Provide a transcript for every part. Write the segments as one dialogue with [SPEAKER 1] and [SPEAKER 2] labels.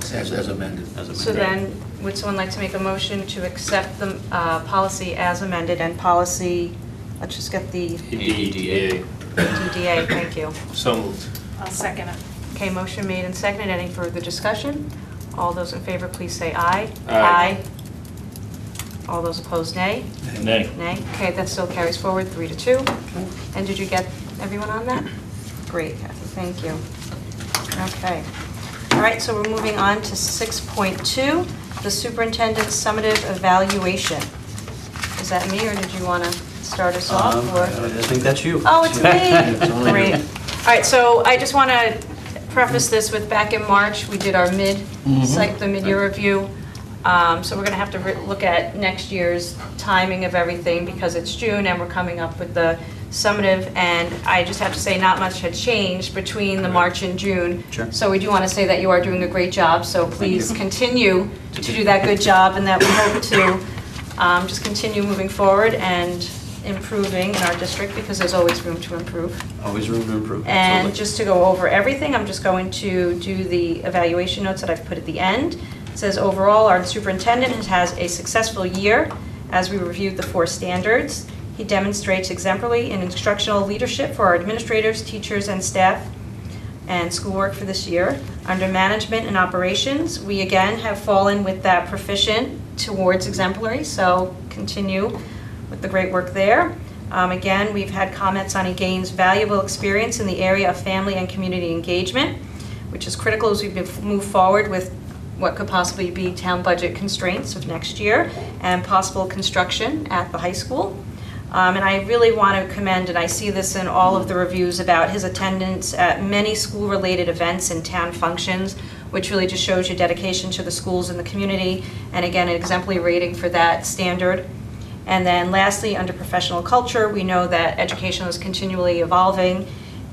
[SPEAKER 1] Yes, as as amended. Um,
[SPEAKER 2] As amended.
[SPEAKER 3] So then, would someone like to make a motion to accept the uh, policy as amended and policy, let's just get the
[SPEAKER 2] EDA.
[SPEAKER 3] DDA, thank you.
[SPEAKER 2] So moved.
[SPEAKER 4] I'll second it.
[SPEAKER 3] Okay, motion made and seconded, any further discussion? All those in favor, please say aye.
[SPEAKER 2] Aye.
[SPEAKER 3] All those opposed, nay.
[SPEAKER 5] Nay.
[SPEAKER 3] Nay, okay, that still carries forward, three to two. And did you get everyone on that? Great, Kathy, thank you. Okay. All right, so we're moving on to 6.2, the superintendent's summative evaluation. Is that me, or did you want to start us off?
[SPEAKER 1] Um,
[SPEAKER 3] or-
[SPEAKER 1] I think that's you.
[SPEAKER 3] Oh, it's
[SPEAKER 1] It's only
[SPEAKER 3] me.
[SPEAKER 1] you.
[SPEAKER 3] Great. All right, so I just want to preface this with back in March, we did our mid,
[SPEAKER 1] Mhm.
[SPEAKER 3] like the mid-year review. Um, So we're going to have to re- look at next year's timing of everything because it's June and we're coming up with the summative. And I just have to say, not much had changed between the March and June.
[SPEAKER 1] Sure.
[SPEAKER 3] So we do want to say that you are doing a great job, so please
[SPEAKER 1] you.
[SPEAKER 3] continue to do that good job and that we hope to um, just continue moving forward and improving in our district because there's always room to improve.
[SPEAKER 1] Always room to improve.
[SPEAKER 3] And
[SPEAKER 1] absolutely.
[SPEAKER 3] just to go over everything, I'm just going to do the evaluation notes that I've put at the end. It says, overall, our superintendent has a successful year as we reviewed the four standards. He demonstrates exemplary in instructional leadership for our administrators, teachers, and staff and schoolwork for this year. Under management and operations, we again have fallen with that proficient towards exemplary, so continue with the great work there. Um, Again, we've had comments on Again's valuable experience in the area of family and community engagement, which is critical as we bef- move forward with what could possibly be town budget constraints of next year and possible construction at the high school. Um, And I really want to commend, and I see this in all of the reviews about his attendance at many school-related events and town functions, which really just shows your dedication to the schools and the community, and again, an exemplary rating for that standard. And then lastly, under professional culture, we know that education is continually evolving,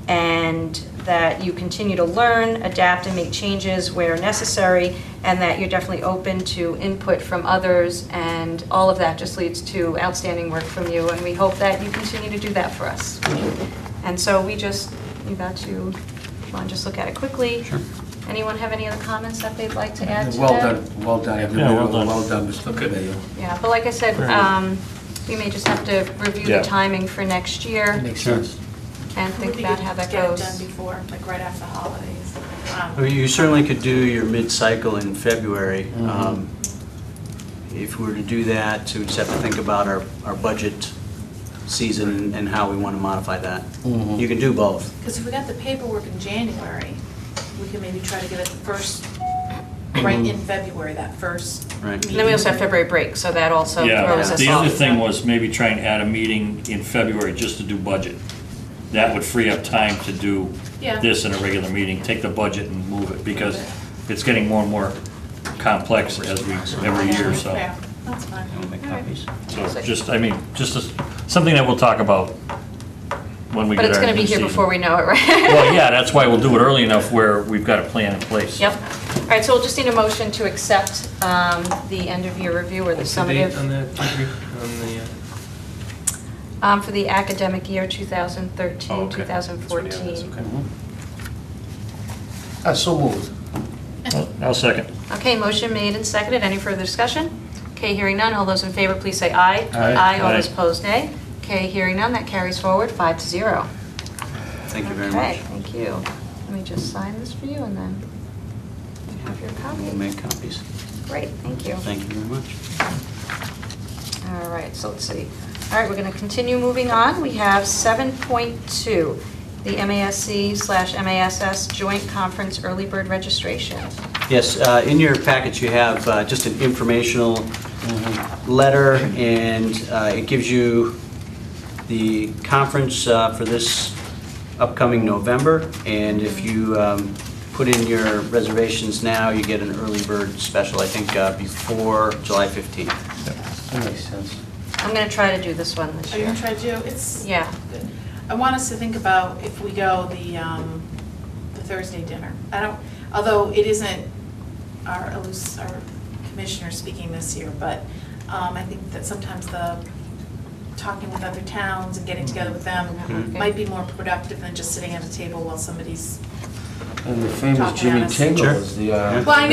[SPEAKER 3] and that you continue to learn, adapt, and make changes where necessary, and that you're definitely open to input from others, and all of that just leads to outstanding work from you, and we hope that you continue to do that for us. And so we just, you got to, want to just look at it quickly?
[SPEAKER 1] Sure.
[SPEAKER 3] Anyone have any other comments that they'd like to add to that?
[SPEAKER 1] Well done, well done. everybody.
[SPEAKER 5] well done.
[SPEAKER 1] Well done, Mr. Mayo.
[SPEAKER 3] Yeah, but like I said,
[SPEAKER 5] Very good.
[SPEAKER 3] um, we may just have to review the
[SPEAKER 5] Yeah.
[SPEAKER 3] timing for next year
[SPEAKER 1] That makes sense.
[SPEAKER 3] and think about how that goes.
[SPEAKER 4] Get it done before, like right after the holidays. Um,
[SPEAKER 6] I mean, You certainly could do your mid-cycle in February.
[SPEAKER 1] Mhm.
[SPEAKER 6] Um, If we were to do that, so we just have to think about our, our budget season and how we want to modify that.
[SPEAKER 1] Mhm.
[SPEAKER 6] You can do both.
[SPEAKER 4] Because if we got the paperwork in January, we could maybe try to get it the first, right in February, that first
[SPEAKER 6] Mm-hmm. Right.
[SPEAKER 4] meeting.
[SPEAKER 3] And then we also have February break, so that also
[SPEAKER 5] Yeah,
[SPEAKER 3] throws us off.
[SPEAKER 5] the other thing was maybe try and add a meeting in February just to do budget. That would free up time to do
[SPEAKER 4] Yeah.
[SPEAKER 5] this in a regular meeting, take the budget and move it, because it's getting more and more complex as we, every year, so.
[SPEAKER 4] Yeah, That's fine.
[SPEAKER 6] make
[SPEAKER 4] All right.
[SPEAKER 6] copies.
[SPEAKER 5] So just, I mean, just as- something that we'll talk about when we
[SPEAKER 3] But
[SPEAKER 5] get
[SPEAKER 3] it's
[SPEAKER 5] our
[SPEAKER 3] gonna be
[SPEAKER 5] new
[SPEAKER 3] here
[SPEAKER 5] season.
[SPEAKER 3] before we know it, right?
[SPEAKER 5] Well, yeah, that's why we'll do it early enough where we've got a plan in place.
[SPEAKER 3] Yep. All right, so we'll just need a motion to accept um, the end-of-year review or the
[SPEAKER 7] What's the date
[SPEAKER 3] summative.
[SPEAKER 7] on that, degree? on the, uh,
[SPEAKER 3] um, For the academic year
[SPEAKER 2] Oh,
[SPEAKER 3] 2013,
[SPEAKER 2] okay. That's what it is,
[SPEAKER 3] 2014.
[SPEAKER 2] okay.
[SPEAKER 1] Ah, so moved.
[SPEAKER 5] I'll second.
[SPEAKER 3] Okay, motion made and seconded. Any further discussion? Okay, hearing none. All those in favor, please say aye.
[SPEAKER 1] Aye.
[SPEAKER 3] all those
[SPEAKER 5] Aye.
[SPEAKER 3] opposed, nay. Okay, hearing none, that carries forward, five to zero.
[SPEAKER 6] Thank you very
[SPEAKER 3] Okay,
[SPEAKER 6] much.
[SPEAKER 3] thank you. Let me just sign this for you and then you have your
[SPEAKER 6] We'll
[SPEAKER 3] copy.
[SPEAKER 6] make copies.
[SPEAKER 3] Great, thank you.
[SPEAKER 6] Thank you very much.
[SPEAKER 3] All right, so let's see. All right, we're going to continue moving on. We have 7.2, the MASC slash MASS Joint Conference Early Bird Registration.
[SPEAKER 6] Yes, uh, in your package, you have uh, just an informational letter, and uh, it gives you the conference uh, for this upcoming November, and if you um, put in your reservations now, you get an early bird special, I think, uh, before July 15th.
[SPEAKER 1] That makes sense.
[SPEAKER 3] I'm going to try to do this one this
[SPEAKER 4] Are you
[SPEAKER 3] year.
[SPEAKER 4] gonna try to do, it's.
[SPEAKER 3] Yeah.
[SPEAKER 4] good. I want us to think about if we go the, um, the Thursday dinner. I don't, although it isn't our, elus- our commissioner speaking this year, but, um, I think that sometimes the talking with other towns and getting together with them
[SPEAKER 3] Mhm.
[SPEAKER 4] might be more productive than just sitting at a table while somebody's
[SPEAKER 1] And the famous
[SPEAKER 4] Talking
[SPEAKER 1] Jimmy
[SPEAKER 4] honest.
[SPEAKER 1] Tingle
[SPEAKER 6] Sure.
[SPEAKER 1] is the. uh,
[SPEAKER 6] Yeah.
[SPEAKER 4] Well, I